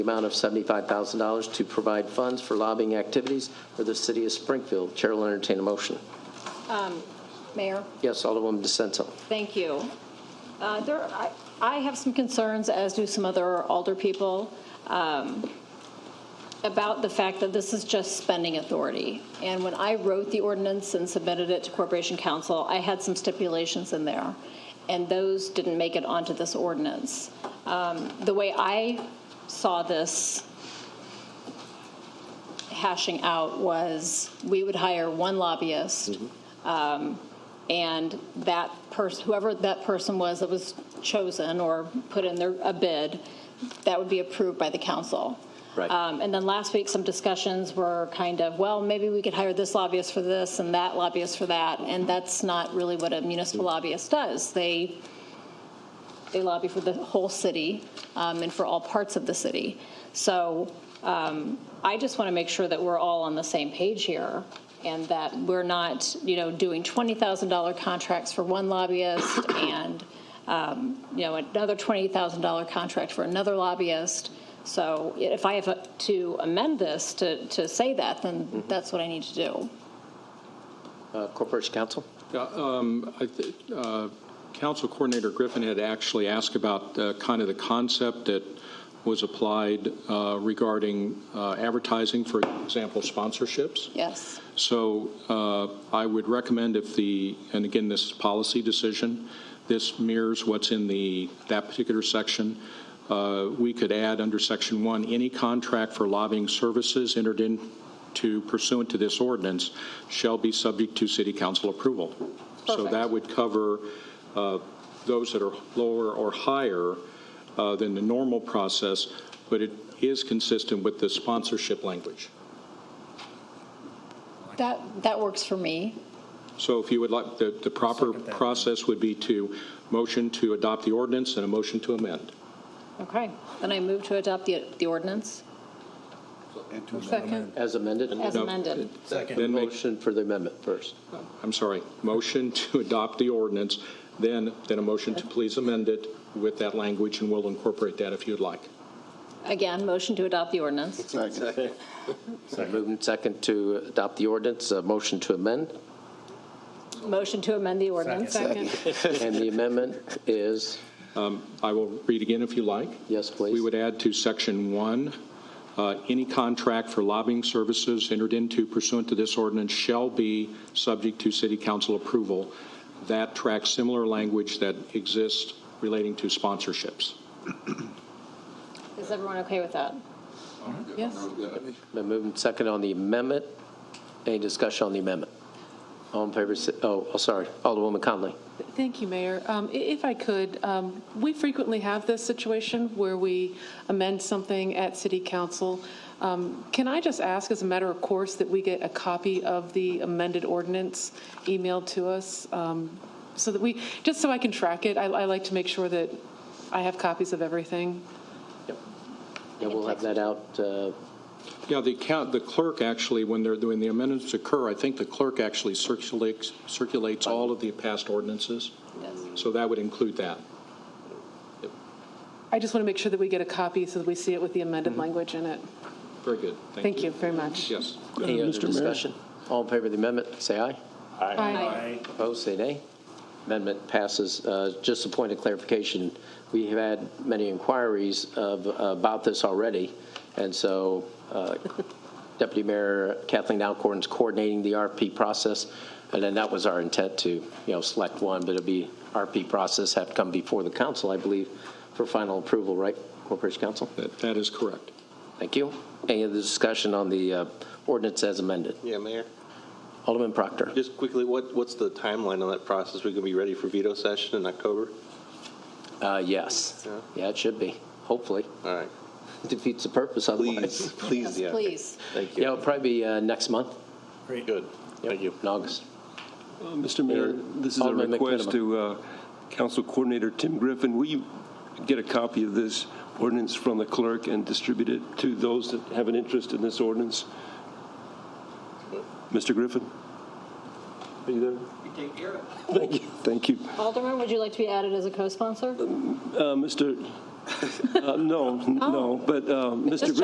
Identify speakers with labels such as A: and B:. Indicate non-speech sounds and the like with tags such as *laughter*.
A: the amount of $75,000 to provide funds for lobbying activities for the city of Springfield. Chair will entertain a motion.
B: Mayor,
A: Yes, Alderwoman DeSenza.
B: thank you. Uh, There, I- I have some concerns, as do some other alder people, um, about the fact that this is just spending authority. And when I wrote the ordinance and submitted it to Corporation Council, I had some stipulations in there, and those didn't make it onto this ordinance. Um, The way I saw this hashing out was, we would hire one lobbyist, um, and that person, whoever that person was that was chosen or put in their, a bid, that would be approved by the council.
A: Right.
B: Um, And then last week, some discussions were kind of, well, maybe we could hire this lobbyist for this and that lobbyist for that, and that's not really what a municipal lobbyist does. They, they lobby for the whole city um, and for all parts of the city. So um, I just want to make sure that we're all on the same page here and that we're not, you know, doing $20,000 contracts for one *coughs* lobbyist and, um, you know, another $20,000 contract for another lobbyist. So if I have to amend this to, to say that, then that's what I need to do.
A: Uh, Corporation Counsel?
C: Yeah, um, I thi- uh, Council Coordinator Griffin had actually asked about uh, kind of the concept that was applied uh, regarding uh, advertising, for example, sponsorships.
B: Yes.
C: So uh, I would recommend if the, and again, this is a policy decision, this mirrors what's in the, that particular section. Uh, We could add under Section 1, any contract for lobbying services entered into pursuant to this ordinance shall be subject to city council approval. So
B: Perfect.
C: that would cover uh, those that are lower or higher uh, than the normal process, but it is consistent with the sponsorship language.
B: That, that works for me.
C: So if you would like, the, the proper process would be to motion to adopt the ordinance and a motion to amend.
B: Okay. Then I move to adopt the, the ordinance
D: Second.
A: As amended?
B: as
C: No.
B: amended.
C: Then make-
A: Motion for the amendment first.
C: I'm sorry, motion *laughs* to adopt the ordinance, then, then a motion to please amend it with that language, and we'll incorporate that if you'd like.
B: Again, motion to adopt the ordinance.
A: Moving second to adopt the ordinance, a motion to *laughs* amend,
B: Motion to amend the ordinance.
D: Second.
A: and the amendment is,
C: I will read again if you like.
A: yes, please.
C: We would add to Section 1, uh, any contract for lobbying services entered into pursuant to this ordinance shall be subject to city council approval. That tracks similar language that exists relating to sponsorships.
B: Is everyone okay with that?
D: Yes.
A: Been moving second on the amendment. Any discussion on the amendment? All in favor, si- oh, oh, sorry, Alderwoman Conley.
D: Thank you, Mayor. Um, i- If I could, um, we frequently have this situation where we amend something at city council. Um, Can I just ask, as a matter of course, that we get a copy of the amended ordinance emailed to us? um, So that we, just so I can track it, I I like to make sure that I have copies of everything.
A: Yeah, we'll have that out, uh,
C: Yeah, the count, the clerk actually, when they're, when the amendments occur, I think the clerk actually circulates, circulates all of the past ordinances. So that would include that.
D: I just want to make sure that we get a copy so that we see it with the amended language in it.
C: Very good.
D: Mm-hmm. Thank you very much.
C: Yes.
A: uh, any other discussion? All in favor of the amendment, say aye.
B: Aye.
A: Opposed, say nay. Amendment passes. Uh, Just a point of clarification, we have had many inquiries of, about this already, and so uh, *laughs* Deputy Mayor Kathleen Alcorn's coordinating the RP process, and then that was our intent to, you know, select one, but it'll be RP process, have to come before the council, I believe, for final approval, right, Corporation Council?
C: That, that is correct.
A: Thank you. Any other discussion on the uh, ordinance as amended?
E: Yeah, Mayor,
A: Alderman Proctor?
E: just quickly, what, what's the timeline on that process? We gonna be ready for veto session in October?
A: Uh, Yes.
E: Yeah.
A: Yeah, it should be, hopefully.
E: All right,
A: defeats the purpose
E: please,
A: otherwise.
E: please,
B: Yes,
E: yeah.
B: Please.
E: Thank
A: Yeah,
E: you.
A: it'll probably be uh, next month.
E: Good, thank you.
A: In August.
F: Mr. Mayor, this is a
A: Alderman
F: request
A: McMenamin.
F: to uh, Council Coordinator Tim Griffin. Will you get a copy of this ordinance from the clerk and distribute it to those that have an interest in this ordinance? Mr. Griffin? Are you there? Thank you, thank you.
B: Alderman, would you like to be added as a co-sponsor?
F: Uh, Mr. *laughs* Oh.
G: Uh, No, n- no, but uh, Mr.
F: Just